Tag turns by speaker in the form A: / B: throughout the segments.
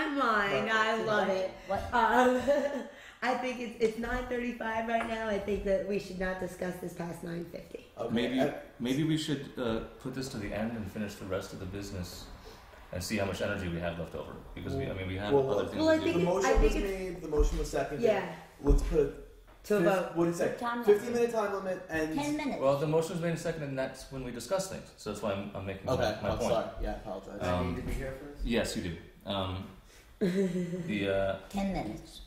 A: and I love it.
B: What?
A: Um, I think it's, it's 9:35 right now. I think that we should not discuss this past 9:50.
C: Okay,
D: Maybe,
C: uh,
D: maybe we should uh, put this to the end and finish the rest of the business, and see how much energy we have left over. Because we, I mean, we have
C: Well,
D: other
C: well,
D: things
A: well, I
D: to do.
C: the
A: think it-
C: motion
A: I think
C: was
A: it's-
C: made. The motion was seconded.
A: Yeah,
C: Let's put a
A: to a vote.
C: fif-
A: Uh,
C: What do you say?
B: Time
C: Fifteen
B: limit.
C: minute time limit and.
B: Ten minutes.
D: Well, the motion was made and seconded, and that's when we discuss things. So that's why I'm, I'm making my-
C: Okay,
D: my,
C: I'm
D: point.
C: sorry. Yeah, I apologize.
D: Uh, Um,
E: I need to be here for this.
D: Yes, you do. Um, the uh,
B: Ten minutes.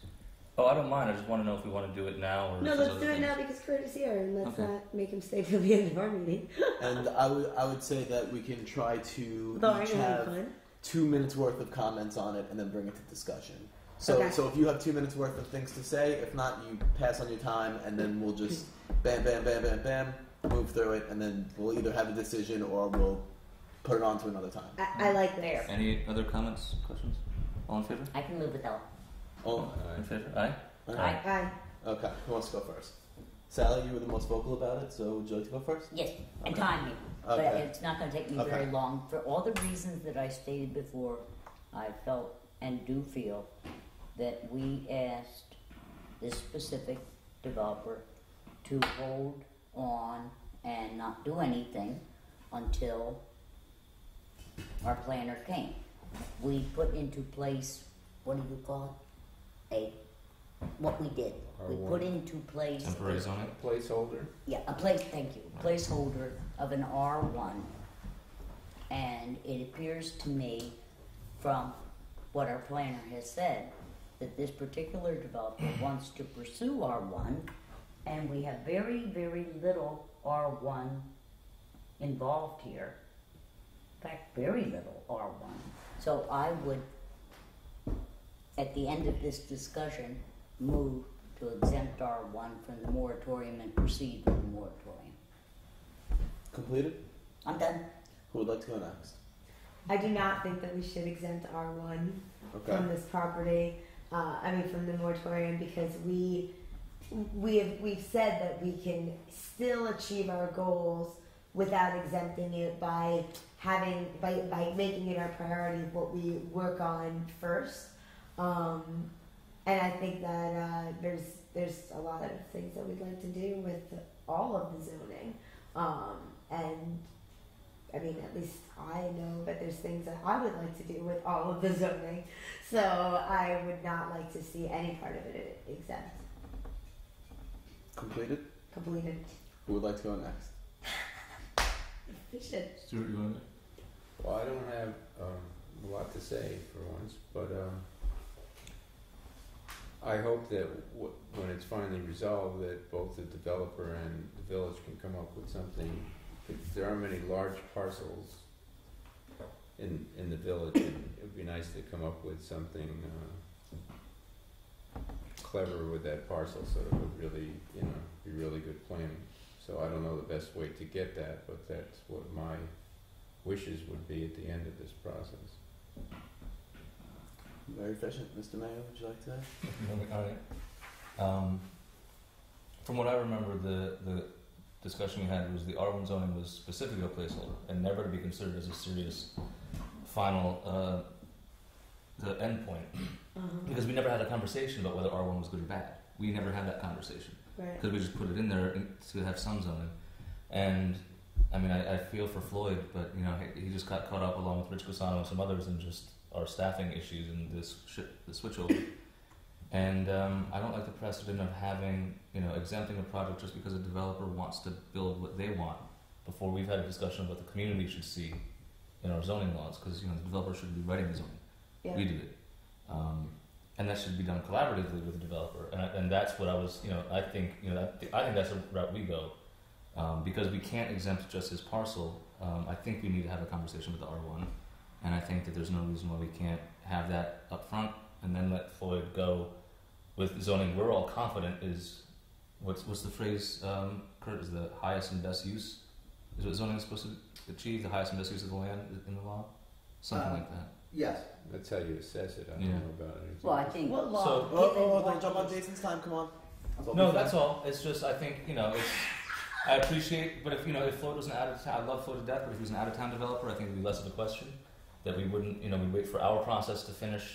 D: oh, I don't mind. I just want to know if we want to do it now or
A: No,
D: if there's
A: let's
D: other
A: do it
D: things.
A: now because Kurt is here, and let's
D: Okay.
A: not make him stay till the end of our meeting.
C: and I would I would say that we can try to
A: Though I'm
C: each
A: having
C: have
A: fun.
C: two minutes worth of comments on it and then bring it to discussion. So
A: Okay.
C: so if you have two minutes worth of things to say, if not, you pass on your time and then we'll just bam bam bam bam bam move through it and then we'll either have a decision or we'll put it on to another time.
A: I, I like this.
D: Any other comments, questions? All in favor?
B: I can live without.
C: Oh,
D: in favor? Aye.
C: all
D: Aye.
C: right.
A: Bye.
C: Okay, who wants to go first? Sally, you were the most vocal about it, so would you like to go first?
B: Yes, and
C: Okay.
B: time me. But
C: Okay.
B: it's not going to take me
C: Okay.
B: very long. For all the reasons that I stated before, I felt and do feel that we asked this specific developer to hold on and not do anything until our planner came. We put into place, what do you call it? A, what we did. We put into place.
D: Temporary zoning.
E: Placeholder.
B: Yeah, a place, thank you, placeholder of an R one. And it appears to me from what our planner has said, that this particular developer wants to pursue R one. And we have very, very little R one involved here. In fact, very little R one. So I would, at the end of this discussion, move to exempt R one from the moratorium and proceed with the moratorium.
C: Completed?
B: I'm done.
C: Who would like to go next?
A: I do not think that we should exempt R1
C: Okay.
A: from this property. Uh, I mean, from the moratorium because we we have we've said that we can still achieve our goals without exempting it by having by by making it our priority what we work on first. Um, and I think that uh, there's there's a lot of things that we'd like to do with all of the zoning. Um, and I mean, at least I know that there's things that I would like to do with all of the zoning. So I would not like to see any part of it exempt,
C: Completed?
A: completed.
C: Who would like to go next?
A: We should.
D: Stuart, you want
E: Well, I don't have um, a lot to say for once, but um, I hope that w- when it's finally resolved, that both the developer and the village can come up with something. 'cause There aren't many large parcels in in the village, and it would be nice to come up with something uh, clever with that parcel, so it would really, you know, be really good planning. So I don't know the best way to get that, but that's what my wishes would be at the end of this process.
C: Very efficient. Mr. Mayor, would you like to?
D: All right. Um, from what I remember, the the discussion we had was the R one zoning was specifically a placeholder and never to be considered as a serious final uh, the end point
A: uh
D: because we never had a conversation about whether R one was good or bad. We never had that conversation.
A: Right.
D: because we just put it in there in- to have some zoning. And I mean, I, I feel for Floyd, but you know, he, he just got caught up along with Rich Cusano and some others in just our staffing issues and this sh- the switchover. And um, I don't like the precedent of having you know exempting a project just because a developer wants to build what they want before we've had a discussion about the community should see in our zoning laws because you know the developer should be writing the zoning.
A: Yeah.
D: We did it. Um, and that should be done collaboratively with the developer. And, I, and that's what I was, you know, I think, you know, that, I think that's the route we go. Um, because we can't exempt just his parcel. Um, I think we need to have a conversation with the R1. And I think that there's no reason why we can't have that up front and then let Floyd go with zoning. We're all confident is, what's, what's the phrase, um, Kurt, is the highest and best use? Is what zoning is supposed to achieve, the highest and best use of the land in the law? Something
E: Uh,
D: like that.
E: Yes. That's how you assess it. I don't
D: Yeah.
E: know about it.
B: Well, I think.
A: What
D: law? So-
C: Oh, oh, oh, don't jump on Jason's time. Come on.
D: No, that's all. It's just I think you know. It's, I appreciate, but if you know, if Floyd was an out of town, I love Floyd to death. But if he was an out of town developer, I think it'd be less of a question that we wouldn't, you know, we would wait for our process to finish